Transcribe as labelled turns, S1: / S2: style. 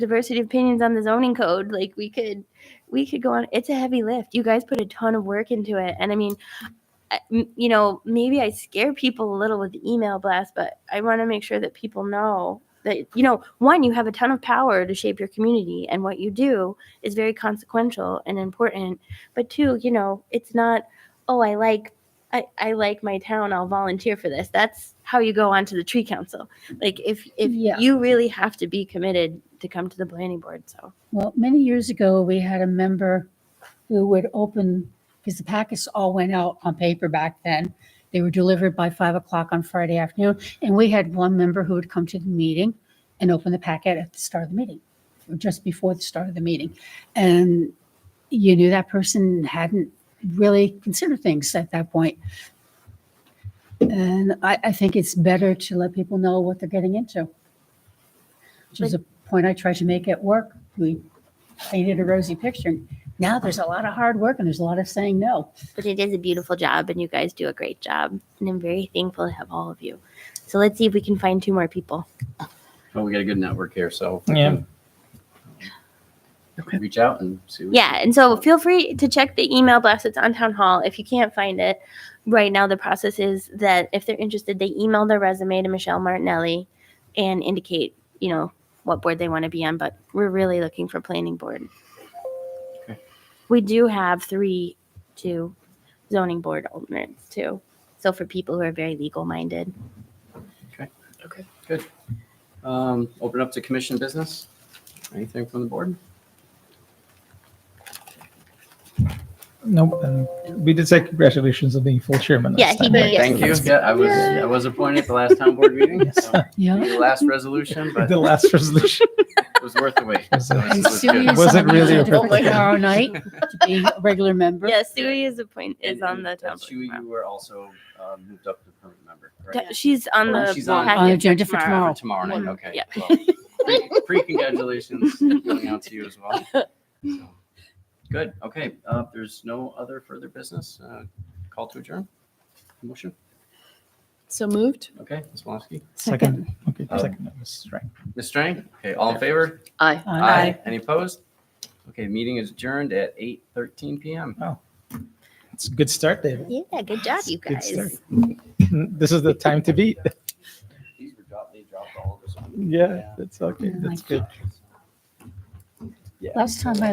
S1: diversity of opinions on the zoning code. Like we could, we could go on. It's a heavy lift. You guys put a ton of work into it, and I mean, I- m- you know, maybe I scare people a little with the email blast, but I want to make sure that people know that you know, one, you have a ton of power to shape your community, and what you do is very consequential and important. But two, you know, it's not. Oh, I like. I, I like my town. I'll volunteer for this. That's how you go onto the tree council. Like if if
S2: Yeah.
S1: you really have to be committed to come to the planning board. So
S2: Well, many years ago, we had a member who would open, because the packets all went out on paper back then. They were delivered by five o'clock on Friday afternoon. And we had one member who would come to the meeting and open the packet at the start of the meeting, or just before the start of the meeting. And you knew that person hadn't really considered things at that point. And I, I think it's better to let people know what they're getting into. Which is a point I tried to make at work. We painted a rosy picture. Now there's a lot of hard work and there's a lot of saying no.
S1: but it is a beautiful job and you guys do a great job. And I'm very thankful to have all of you. So let's see if we can find two more people.
S3: Well, we got a good network here, so. we
S4: Yeah.
S3: can Reach out and see. what-
S1: Yeah, and so feel free to check the email blast. It's on town hall. If you can't find it right now, the process is that if they're interested, they email their resume to Michelle Martinelli and indicate, you know, what board they want to be on. But we're really looking for planning board.
S3: Okay.
S1: We do have three, two zoning board alternates too. So for people who are very legal minded,
S3: Um, open up to commission business. Anything from the board?
S4: Nope. And we did say congratulations on being full chairman.
S1: Yeah,
S4: last
S1: he
S4: time,
S1: did.
S4: right?
S1: Yes.
S3: Thank you. Yeah, I was, I was appointed at the last town board meeting.
S4: Yes.
S3: so
S2: Yeah.
S3: The last resolution, but
S4: The last resolution.
S3: it was worth the wait. so this
S2: And
S3: was
S2: Sue
S3: good.
S2: is
S4: Was it
S2: on the
S4: really
S2: agenda for
S4: appropriate?
S2: Tomorrow night to be a regular member.
S1: yeah, Sue is a point is on the
S3: And
S1: town.
S3: Shu, you were also uh, moved up to permanent member, correct?
S1: She's on
S3: Oh,
S1: the
S3: she's
S2: On
S3: on-
S2: the
S1: packet
S2: agenda for
S1: tomorrow.
S2: tomorrow.
S3: Tomorrow night,
S1: Yeah.
S3: okay. well, pre- Pre-congratulations going out to you as well. So, Good, okay. uh, if There's no other further business. uh, Call to adjourn. Motion,
S5: So moved?
S3: okay, Ms. Walensky.
S4: Second. Okay,
S3: Um,
S4: second. That was right.
S3: Ms. Strang, okay, all in favor?
S5: Aye.
S2: Aye.
S3: Any opposed? Okay, meeting is adjourned at 8:13 PM.
S4: It's a good start, David.
S1: Yeah, good job, you
S4: Good
S1: guys.
S4: start. This is the time to beat.
S3: These were dropped, they dropped all of us on.
S4: Yeah, that's okay. That's good.
S2: Last time I